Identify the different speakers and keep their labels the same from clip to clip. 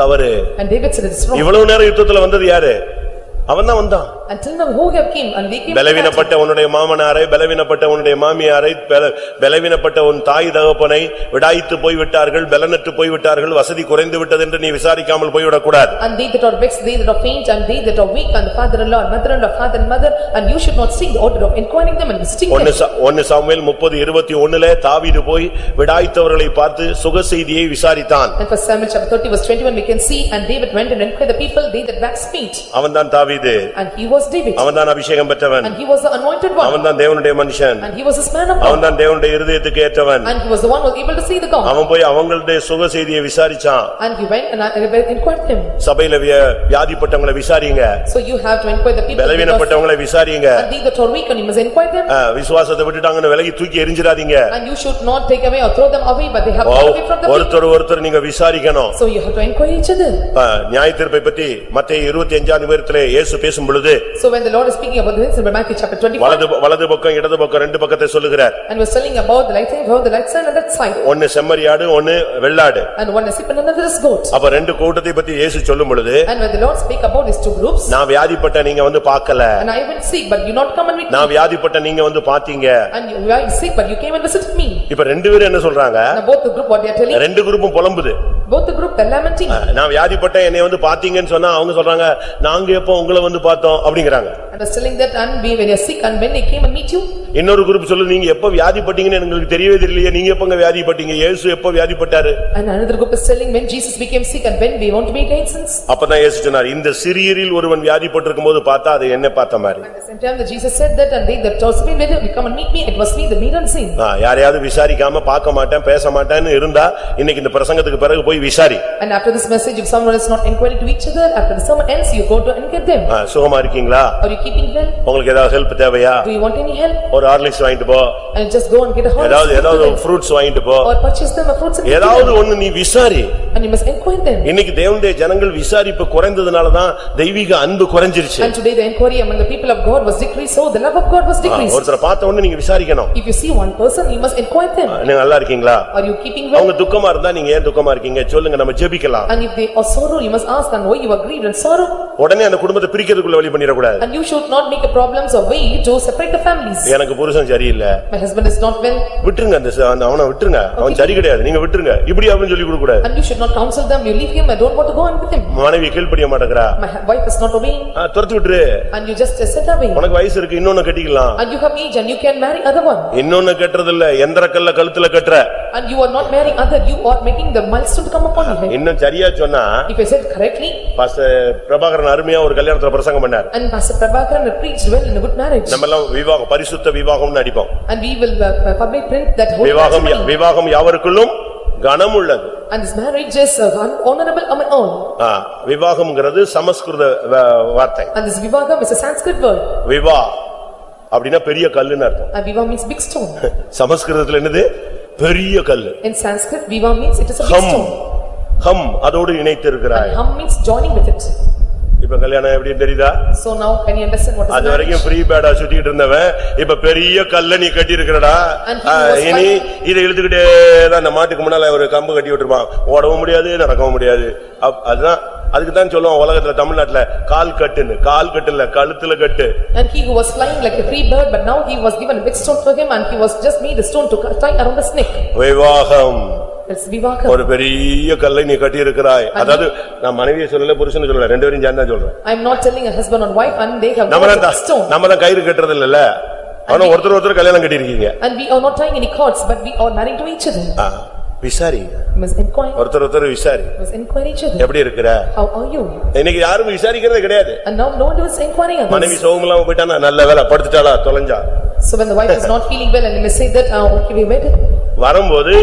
Speaker 1: தவறு
Speaker 2: And David said, "It's wrong."
Speaker 1: இவ்வளவு நேரம் யுத்தத்துல வந்தது யாரு அவன் தான் வந்தான்
Speaker 2: Until now, who have came and we came. to battle.
Speaker 1: பலவீனப்பட்ட உன்னுடைய மாமனாரை பலவீனப்பட்ட உன்னுடைய மாமியாரை பல- பலவீனப்பட்ட உன் தாய் தகப்பனை விடாய்த்து போய்விட்டார்கள் பலனற்று போய்விட்டார்கள் வசதி குறைந்து விட்டது என்று நீ விசாரிக்காமல் போய்விடக்கூடாது
Speaker 2: And they that are vexed, they that are faint, and they that are weak, and the father-in-law, and mother-in-law, father and mother, and you should not seek the order of inquiring them and visiting them.
Speaker 1: ஒன்னு சா- ஒன்னு Samuel முப்பது இருபத்தி ஒண்ணுல தாவீது போய் விடாய்த்தவர்களை பார்த்து சுக செய்தியை விசாரித்தான்
Speaker 2: And for Samuel chapter thirty verse twenty-one, we can see, "And David went and inquired the people, they that waxed faint."
Speaker 1: அவன்தான் தாவீது
Speaker 2: And he was David,
Speaker 1: அவன்தான் அபிஷேகம் பெற்றவன்
Speaker 2: and he was the anointed one,
Speaker 1: அவன்தான் தேவனுடைய மனுஷன்
Speaker 2: and he was this man of God,
Speaker 1: அவன்தான் தேவனுடைய இருதயத்துக்கு ஏற்றவன்
Speaker 2: and he was the one who was able to see the God.
Speaker 1: அவன் போய் அவங்களுடைய சுக செய்தியை விசாரிச்சான்
Speaker 2: And he went and I- and I inquired them.
Speaker 1: சபையில விய- வியாதிப்பட்டவங்களை விசாரிங்க
Speaker 2: So you have to inquire the people. because-
Speaker 1: பலவீனப்பட்டவங்களை விசாரிங்க
Speaker 2: And they that are weak, and you must inquire them,
Speaker 1: ஆ, விசுவாசத்தை விட்டுட்டாங்கன்னு விலகி தூக்கி எரிஞ்சிடாதீங்க
Speaker 2: and you should not take away or throw them away, but they have to away from the people.
Speaker 1: ஒருத்தர் ஒருத்தர் நீங்க விசாரிக்கணும்
Speaker 2: So you have to inquire each other.
Speaker 1: ஆ, நியாயத்தீர்ப்பை பத்தி மத்தேயு இருபத்தி அஞ்சாம் நிமிடத்திலே இயேசு பேசும் பொழுது
Speaker 2: So when the Lord is speaking about this in Matthew chapter twenty-five,
Speaker 1: வலது வலது பக்கம் இடது பக்கம் ரெண்டு பக்கத்தை சொல்லுகிறார்
Speaker 2: and was telling about the light side, how the light side and that side,
Speaker 1: ஒன்னு செம்மறியாடு ஒன்னு வெள்ளாடு
Speaker 2: and one is sheep and another is goat.
Speaker 1: அப்ப ரெண்டு கூட்டத்தை பத்தி இயேசு சொல்லும் பொழுது
Speaker 2: And when the Lord speak about these two groups,
Speaker 1: நான் வியாதிப்பட்ட நீங்க வந்து பார்க்கல
Speaker 2: and I went sick, but you not come and meet me,
Speaker 1: நான் வியாதிப்பட்ட நீங்க வந்து பாத்தீங்க
Speaker 2: and you were sick, but you came and visited me.
Speaker 1: இப்ப ரெண்டு பேரும் என்ன சொல்றாங்க
Speaker 2: Now both the group, what they are telling,
Speaker 1: ரெண்டு குரூப்பும் புலம்புது
Speaker 2: both the group, they are lamenting,
Speaker 1: நான் வியாதிப்பட்ட என்னை வந்து பாத்தீங்கன்னு சொன்னா அவங்க சொல்றாங்க நாங்க எப்போ உங்களை வந்து பார்த்தோம் அப்படிங்கறாங்க
Speaker 2: and was telling that, and we, when you are sick, and when they came and meet you,
Speaker 1: இன்னொரு குரூப் சொல்லு நீங்க எப்போ வியாதிப்பட்டீங்கன்னு எங்களுக்கு தெரியவே தெரியலையே நீங்க எப்பங்க வியாதிப்பட்டீங்க இயேசு எப்போ வியாதிப்பட்டாரு
Speaker 2: and another group is telling, when Jesus became sick, and when we want to be again since.
Speaker 1: அப்பதான் இயேசு சொன்னார் இந்த சிறியரில் ஒருவன் வியாதிப்பட்டிருக்கும் போது பார்த்தா அது என்ன பார்த்த மாதிரி
Speaker 2: At the same time, that Jesus said that, and they that also been with you, come and meet me, it was me, the mirror seen.
Speaker 1: ஆ, யாரையாவது விசாரிக்காம பார்க்க மாட்டேன் பேச மாட்டேன்னு இருந்தா இன்னைக்கு இந்த பிரசங்கத்துக்கு பிறகு போய் விசாரி
Speaker 2: And after this message, if someone is not inquiring to each other, after the sermon ends, you go to and get them.
Speaker 1: ஆ, சுகமா இருக்கீங்களா
Speaker 2: Are you keeping well?
Speaker 1: உங்களுக்கு ஏதாவது ஹெல்ப் தேவையா
Speaker 2: Do you want any help?
Speaker 1: ஒரு Horlicks வாங்கிட்டு போ
Speaker 2: And just go and get a
Speaker 1: ஏதாவது ஏதாவது
Speaker 2: horse
Speaker 1: ஃப்ரூட்ஸ் வாங்கிட்டு போ
Speaker 2: or purchase them a fruits and give
Speaker 1: ஏதாவது
Speaker 2: them.
Speaker 1: ஒண்ணு நீ விசாரி
Speaker 2: And you must inquire them.
Speaker 1: இன்னைக்கு தேவனுடைய ஜனங்கள் விசாரிப்பு குறைந்ததுனாலதான் தெய்வீக அன்பு குறைஞ்சிருச்சு
Speaker 2: And today the inquiry among the people of God was decreased, so the love of God was decreased.
Speaker 1: ஒருத்தரை பார்த்த உடனே நீங்க விசாரிக்கணும்
Speaker 2: If you see one person, you must inquire them.
Speaker 1: நீங்க நல்லா இருக்கீங்களா
Speaker 2: Are you keeping well?
Speaker 1: அவங்க துக்கமா இருந்தா நீங்க ஏன் துக்கமா இருக்கீங்க சொல்லுங்க நம்ம ஜெபிக்கலாம்
Speaker 2: And if they are sorrow, you must ask them why you are grieved and sorrow.
Speaker 1: உடனே அந்த குடும்பத்தை பிரிக்கிறதுக்குள்ள வழி பண்ணிடக்கூடாது
Speaker 2: And you should not make a problems or way to separate the families.
Speaker 1: எனக்கு புருஷன் சரியில்லை
Speaker 2: My husband is not well,
Speaker 1: விட்டுருங்க அந்த ச- அந்த அவனை விட்டுருங்க அவன் சரி கிடையாது நீங்க விட்டுருங்க இப்படி அப்படின்னு சொல்லி கொடுக்க கூடாது
Speaker 2: and you should not counsel them, you leave him, I don't want to go on with him.
Speaker 1: மனைவி கீழ்ப்படிய மாட்டேங்கிறா
Speaker 2: My hu- wife is not obeying,
Speaker 1: ஆ, துரத்து விட்டுரு
Speaker 2: and you just sit away.
Speaker 1: உனக்கு வயசு இருக்கு இன்னொன்னு கட்டிக்கலாம்
Speaker 2: And you have age and you can marry other one.
Speaker 1: இன்னொன்னு கட்டுறது இல்ல எந்திர கல்ல கழுத்துல கட்டுற
Speaker 2: And you are not marrying other, you are making the milestone to come upon you.
Speaker 1: இன்னும் சரியா சொன்னா
Speaker 2: If I said correctly,
Speaker 1: pastor Prabhakaran அருமையா ஒரு கல்யாணத்துல பிரசங்கம் பண்ணார்
Speaker 2: and Pastor Prabhakaran preached well in a good marriage.
Speaker 1: நம்ம எல்லாம் விவாகம் பரிசுத்த விவாகம்னு அடிப்போம்
Speaker 2: And we will uh, public print that whole
Speaker 1: விவாகம் யா-
Speaker 2: matrimony.
Speaker 1: விவாகம் யாவருக்குள்ளும் கனம் உள்ளது
Speaker 2: And this marriage is uh, honorable among all.
Speaker 1: ஆ, விவாகம்ங்கிறது சமஸ்கிருத வ- வார்த்தை
Speaker 2: And this vivagam is a Sanskrit word.
Speaker 1: விவா அப்படின்னா பெரிய கல்லுன்னு அர்த்தம்
Speaker 2: And viva means big stone.
Speaker 1: சமஸ்கிருதத்துல என்னது பெரிய கல்லு
Speaker 2: In Sanskrit, viva means it is a big
Speaker 1: hmm
Speaker 2: stone.
Speaker 1: ஹம் அதோடு இணைத்து இருக்கிறாய்
Speaker 2: And hum means joining with it.
Speaker 1: இப்ப கல்யாணம் எப்படி தெரியுதா
Speaker 2: So now can you understand what is
Speaker 1: அது
Speaker 2: marriage?
Speaker 1: வரைக்கும் ஃப்ரீ பேடா சுத்திட்டு இருந்தவன் இப்ப பெரிய கல்ல நீ கட்டி இருக்கிறடா
Speaker 2: And he was
Speaker 1: இனி
Speaker 2: fighting.
Speaker 1: இதை இழுத்துக்கிட்டே தான் அந்த மாட்டுக்கு முன்னால ஒரு கம்பு கட்டி விட்டுருப்பான் ஓடவும் முடியாது நடக்கவும் முடியாது அப்- அதுதான் அதுக்கு தான் சொல்லுவோம் உலகத்துல தமிழ்நாட்டுல கால் கட்டுன்னு கால் கட்டு இல்ல கழுத்துல கட்டு
Speaker 2: And he who was flying like a free bird, but now he was given a big stone for him and he was just made a stone to tie around his neck.
Speaker 1: விவாகம்
Speaker 2: It's vivagam.
Speaker 1: ஒரு பெரிய கல்லை நீ கட்டி இருக்கிறாய் அதாவது நான் மனைவியை சொல்லல புருஷனை சொல்லல ரெண்டு பேரும் சேர்ந்து தான் சொல்றேன்
Speaker 2: I am not telling a husband or wife and they have
Speaker 1: நம்ம
Speaker 2: got a
Speaker 1: தான்
Speaker 2: stone.
Speaker 1: நம்ம தான் கயிறு கட்டுறது இல்லல ஆனா ஒருத்தர் ஒருத்தர் கல்யாணம் கட்டியிருக்கீங்க
Speaker 2: And we are not tying any cords, but we are married to each other.
Speaker 1: Ah, விசாரி
Speaker 2: We must inquire,
Speaker 1: ஒருத்தர் ஒருத்தர் விசாரி
Speaker 2: we must inquire each other.
Speaker 1: எப்படி இருக்கிற
Speaker 2: How are you?
Speaker 1: இன்னைக்கு யாரும் விசாரிக்கிறதே கிடையாது
Speaker 2: And now no one is inquiring
Speaker 1: மனைவி
Speaker 2: others.
Speaker 1: சோகம் இல்லாம போயிட்டானா நல்ல வேலை படுத்துட்டாளா தொலைஞ்சா
Speaker 2: So when the wife is not feeling well and they may say that, "Ah, okay, we waited.
Speaker 1: வரும்போது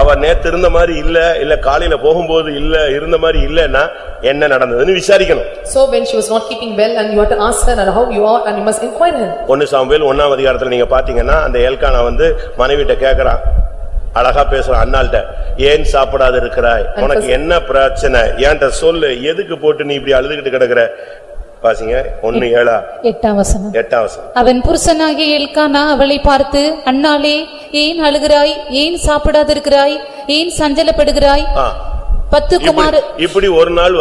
Speaker 1: அவ நேத்து இருந்த மாதிரி இல்ல இல்ல காலையில போகும்போது இல்ல இருந்த மாதிரி இல்லன்னா என்ன நடந்ததுன்னு விசாரிக்கணும்
Speaker 2: So when she was not keeping well and you have to ask her and how you are and you must inquire her.
Speaker 1: ஒன்னு சாம்பேல் ஒன்னாம் அதிகாரத்துல நீங்க பாத்தீங்கன்னா அந்த ஏல்கானா வந்து மனைவிட்ட கேக்குறான் அழகா பேசுறான் அண்ணாள்கிட்ட ஏன் சாப்பிடாத இருக்கிறாய் உனக்கு என்ன பிரச்சனை ஏன்ட்ட சொல்லு எதுக்கு போட்டு நீ இப்படி அழுதுகிட்டு கிடக்குற பாசிங்க ஒன்னு ஏழா
Speaker 3: எட்டாம் வசனம்
Speaker 1: எட்டாம் வசனம்
Speaker 3: அவன் புருஷனாகிய எல்கானா அவளை பார்த்து அண்ணாளே ஏன் அழுகிறாய் ஏன் சாப்பிடாதிருக்கிறாய் ஏன் சஞ்சலப்படுகிறாய்
Speaker 1: ஆ,
Speaker 3: பத்து
Speaker 1: இப்படி-
Speaker 3: குமார
Speaker 1: இப்படி ஒரு நாள்